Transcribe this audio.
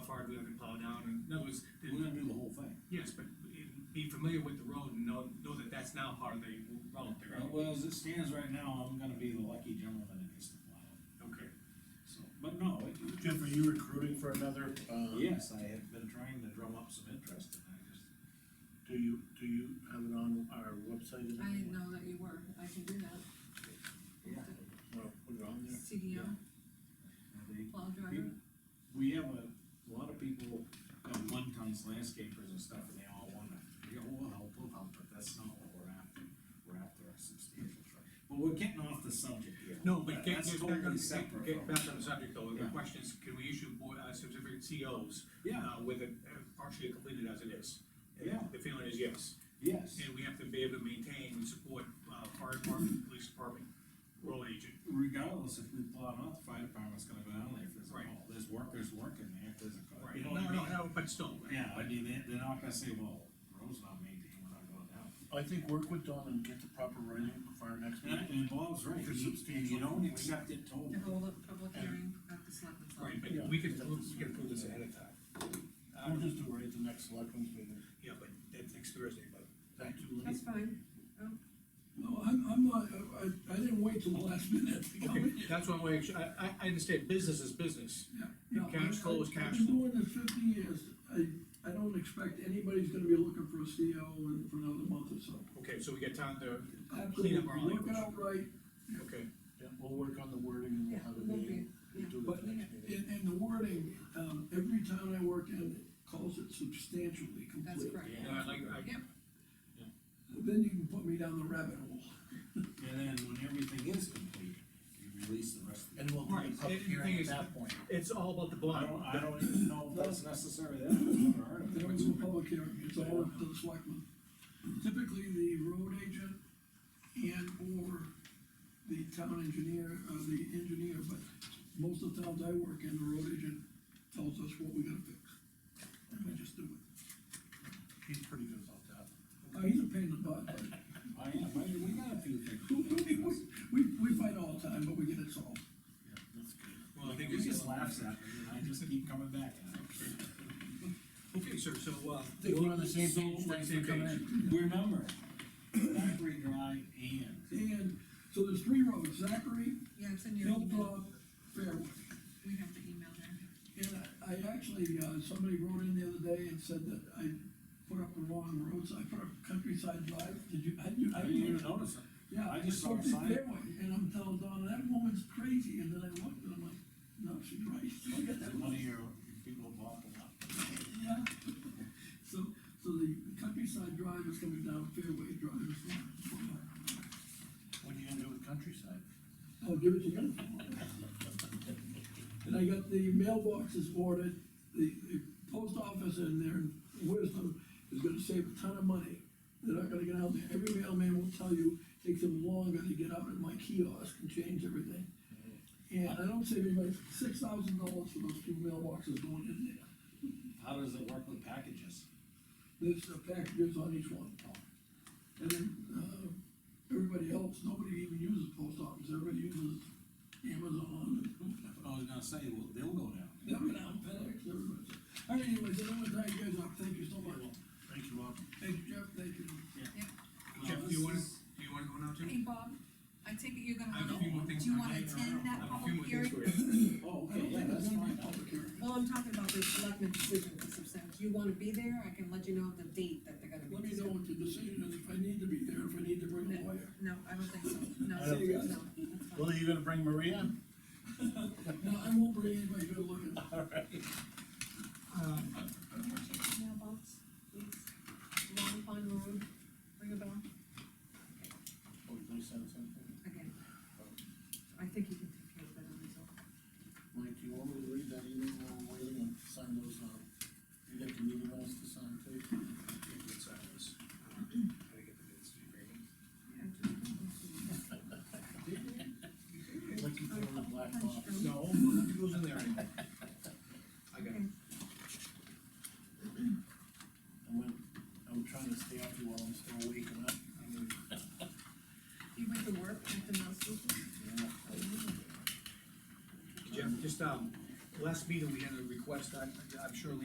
around, and in other words, We're gonna do the whole thing. yes, but it- be familiar with the road and know, know that that's now part of the road there. Uh, Well, as it stands right now, I'm gonna be the lucky gentleman that gets to plow it, Okay, so, but no, it, Jeff, are you recruiting for another, uh? yes, I have been trying to drum up some interest, and I just, Do you, do you have it on our website? I didn't know that you were, I can do that, yeah. Well, put it on there. CDL, They plow driver, We have a, a lot of people have one tons landscapers and stuff, and they all wanna, yeah, we'll help, we'll help, but that's not what we're after. We're after a substantial truck, but we're getting off the subject here. no, but get, That's get back on, totally get, separate get from- back on the subject though, the Yeah. question is, can we issue board, uh, certificate COs? Yeah. Uh, with it uh, partially completed as it is? And Yeah. The feeling is yes, Yes, and we have to be able to maintain and support, uh, fire department, police department, rural agent. regardless if we plow or not, the fire department's gonna go down there if there's a Right. hole, there's workers working there, if there's a. car- you Right, know no, what I no, mean? no, but still, right? Yeah, I mean, they, they're not gonna say, well, road's not maintained, we're not going down. I think work with Don and get the proper writing for our next And, meeting. and Bob's right, For you, substantial- you don't accept it totally. to hold up public hearing at the selectmen's. Right, office. but we can, we can prove this ahead of time. Uh, We'll just do it at the next selectmen's meeting. yeah, but that's next Thursday, but Thank you, Lee. That's fine, No, I'm, I'm not, I, I didn't wait till the last minute to come in. Okay, that's one way, I, I, I understand, business is business. Yeah. And cash flow is cash I've been doing this fifty years, I, I don't expect anybody's gonna be looking for a CO in, for another month or so. Okay, so we got time to clean Absolutely, up our Look it language. up right, Okay, Yeah, we'll work on the wording and we'll Yeah, have a it won't meeting. be- We'll yeah. do it but, at the next meeting. and, and the wording, um, every town I work in calls it substantially complete. that's correct. No, Yeah. I like, I, Yep, Then you can put me down the rabbit hole. And then when everything is complete, you release the rest of it. And we'll do Right, a and the public thing hearing is- at that point. it's all about the I blind. don't, I don't even know if that's necessary, that's another They article. don't do a public hearing, it's all up to the selectmen. Typically, the road agent and/or the town engineer, uh, the engineer, but most of the towns I work in, the road agent tells us what we gotta fix. And we just do it. He's pretty good about that. Uh, he's a pain in the butt, but I am, I, we got a few we, things. we, we fight all the time, but we get it solved. Yeah, that's good. Well, I think He it's just laughs at me, and I just keep coming back at him. okay, sir, so, uh. Think we're on the same so- page, thanks for coming in. Remember, Blackberry Drive and, And, so there's three roads, Zachary, yeah, it's in your email, Hilltop, Fairway. we have the email there. And I, I actually, uh, somebody wrote in the other day and said that I put up the wrong roads, I put up Countryside Drive, did you, I, you, I I. didn't even notice it. Yeah, I I just just saw a looked at sign. Fairway, and I'm telling Donna, that woman's crazy, and then I looked, and I'm like, no, she's right, I got that One money, of your people bought them up. yeah. So, so the Countryside Drive is coming down, Fairway Drive is going, What are you gonna do with countryside? I'll give it to you. And I got the mailboxes ordered, the, the post office in their wisdom is gonna save a ton of money. They're not gonna get out there, every mailman will tell you, takes them longer to get out at my kiosk and change everything. And I don't save anybody six thousand dollars for those two mailboxes going in there, How does it work with packages? there's uh, packages on each one. And then, uh, everybody else, nobody even uses post office, everybody uses Amazon and I was gonna say, well, they'll go down. Yeah, I'm gonna outfit it, everybody. All right, anyways, I don't wanna tie you guys up, thank you so much. Thank you, Bob. Thank you, Jeff, thank you. Jeff, do you wanna, do you wanna go now too? Hey, Bob, I take it you're gonna I have a wanna, few more things do you I'm wanna hanging attend I that have a few more public things hearing? for you. Oh, I don't okay, yeah, think that's there's fine. gonna be a public hearing. Well, I'm talking about the selectmen decision, because if you wanna be there, I can let you know the date that they're gonna be. Let me know what the decision is, if I need to be there, if I need to bring a lawyer. No, I don't think so, no, I no, don't think so. that's fine. Well, are you gonna bring Maria? No, I won't bring anybody good looking. Uh, Can you check the mailbox, please? Long Pond Road, ring a bell? Oh, Or did they send something? Again, I think you can take care of that on his own. Mike, do you want me to read that email while we're waiting and sign those, um, you got the meeting minutes to sign too? Let's sign this. Uh, how to get the minutes to be agreement. Like you put on the black box. No, nothing goes in there anymore. I got it. Okay. I'm, gonna- I'm trying to stay up here while I'm still awake and up. I'm gonna- You went to work at the mouse Jeff, just, um, last meeting, we had a request, I, I'm sure